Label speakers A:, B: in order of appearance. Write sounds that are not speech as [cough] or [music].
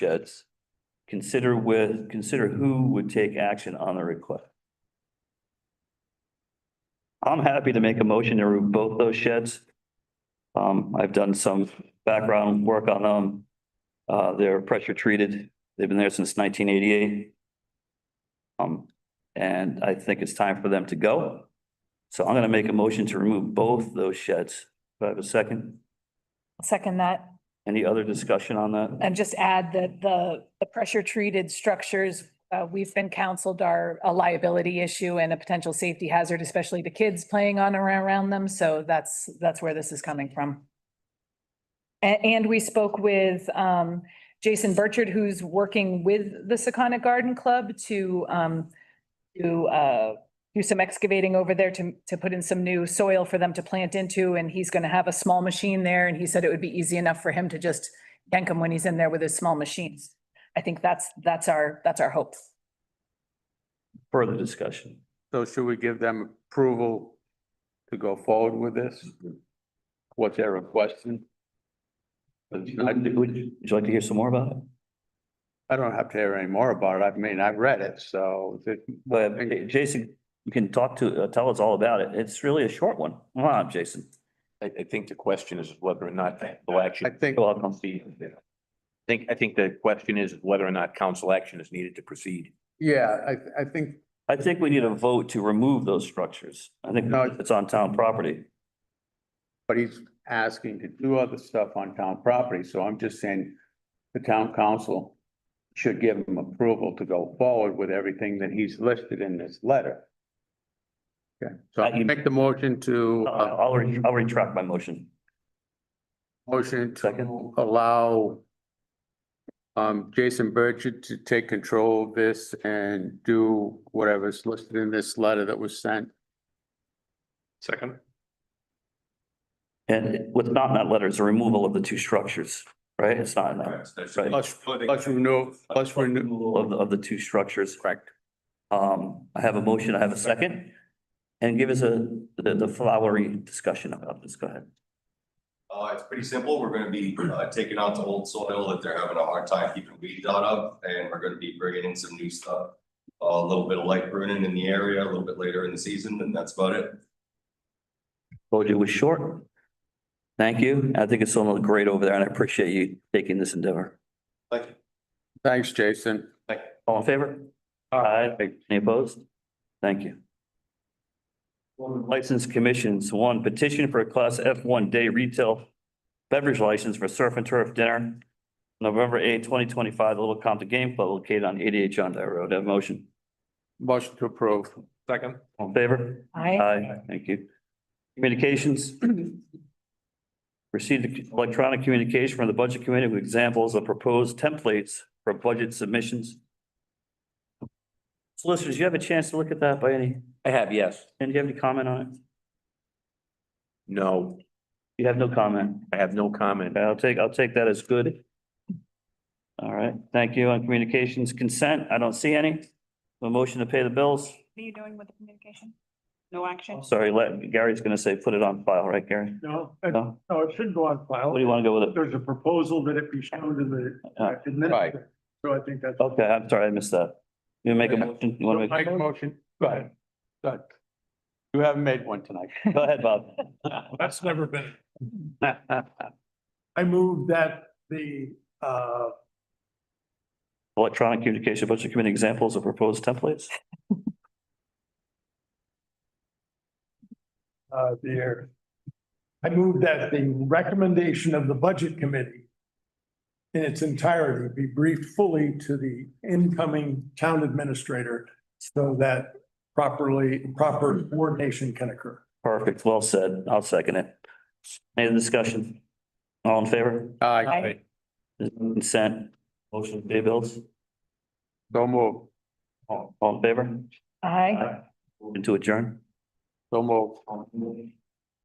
A: goods. Consider with, consider who would take action on the request. I'm happy to make a motion to remove both those sheds. Um, I've done some background work on them. Uh, they're pressure treated. They've been there since nineteen eighty-eight. Um, and I think it's time for them to go. So I'm gonna make a motion to remove both those sheds. Do I have a second?
B: Second that,
A: Any other discussion on that?
B: and just add that the, the pressure treated structures, uh, we've been counseled are a liability issue and a potential safety hazard, especially to kids playing on or around them. So that's, that's where this is coming from. A- And, we spoke with, um, Jason Burchard, who's working with the Secana Garden Club to, um, to, uh, do some excavating over there to, to put in some new soil for them to plant into. And he's going to have a small machine there. And he said it would be easy enough for him to just yank him when he's in there with his small machines. I think that's, that's our, that's our hope.
A: Further discussion?
C: So should we give them approval to go forward with this? What's their request? I
A: Would, would you like to hear some more about it?
C: I don't have to hear any more about it. I mean, I've read it, so it-
A: But uh, Jason, you can talk to, uh, tell us all about it. It's really a short one. Come on, Jason.
D: I, I think the question is whether or not the
C: I
D: action.
C: think,
A: You're welcome.
D: I think, I think the question is whether or not council action is needed to proceed.
C: yeah, I, I think,
A: I think we need a vote to remove those structures. I think
C: No.
A: it's on town property.
C: but he's asking to do other stuff on town property, so I'm just saying the town council should give him approval to go forward with everything that he's listed in this letter. Okay, so I make the motion to. uh,
A: I'll, I'll re- I'll retract my motion.
C: Motion to
A: Second.
C: allow um, Jason Burchett to take control of this and do whatever's listed in this letter that was sent.
D: Second.
A: And what's not in that letter is the removal of the two structures, right? It's not in that. Right.
C: Plus, plus renew, plus renew.
A: Removal Of, the- of the two structures.
C: Correct.
A: Um, I have a motion, I have a second. And give us a, the, the flowery discussion about this. Go ahead.
E: Uh, it's pretty simple. We're gonna be uh, taking out the old soil that they're having a hard time keeping weeds out of, and we're gonna be bringing in some new stuff. A little bit of light pruning in the area a little bit later in the season, and that's about it.
A: Told you it was short. Thank you. I think it's going to look great over there and I appreciate you taking this endeavor.
E: Thank you.
C: Thanks, Jason.
A: All in favor? Aye. Any opposed? Thank you. License commissions, one petition for a class F one day retail beverage license for surf and turf dinner. November eighth, twenty twenty-five, Little Compton Game Club located on eighty-eight John Day Road. Have a motion.
C: Motion to approve.
D: Second.
A: All in favor?
B: I,
A: Aye, thank you. Communications. [clears throat] Received electronic communication from the Budget Committee with examples of proposed templates for budget submissions. Solicitors, you have a chance to look at that by any,
D: I have, yes.
A: and do you have any comment on it?
D: No,
A: You have no comment.
D: I have no comment.
A: Okay, I'll take, I'll take that as good. All right, thank you. On communications consent, I don't see any. A motion to pay the bills.
F: What are you doing with the communication? No action?
A: Sorry, let- Gary's gonna say, put it on file, right, Gary?
G: No, it-
A: No?
G: no, it shouldn't go on file.
A: What do Oh, you wanna go with it?
G: There's a proposal that it be shown to the uh, administrator. So I think that's.
A: Okay, I'm sorry, I missed that. You make a motion, you wanna
C: Make a motion. Go ahead. Go ahead. You haven't made one tonight.
A: make, go ahead, Bob. [laughs]
G: That's never been. I move that the, uh,
A: Electronic communication budget committee examples of proposed templates.
G: uh, the, I move that the recommendation of the budget committee in its entirety be briefed fully to the incoming town administrator so that properly, proper coordination can occur.
A: Perfect, well said. I'll second it. Any discussion? All in favor?
C: Aye.
A: There's no Consent, motion to pay bills,
C: So move.
A: all all in favor?
B: I,
A: Motion to adjourn.
C: So move.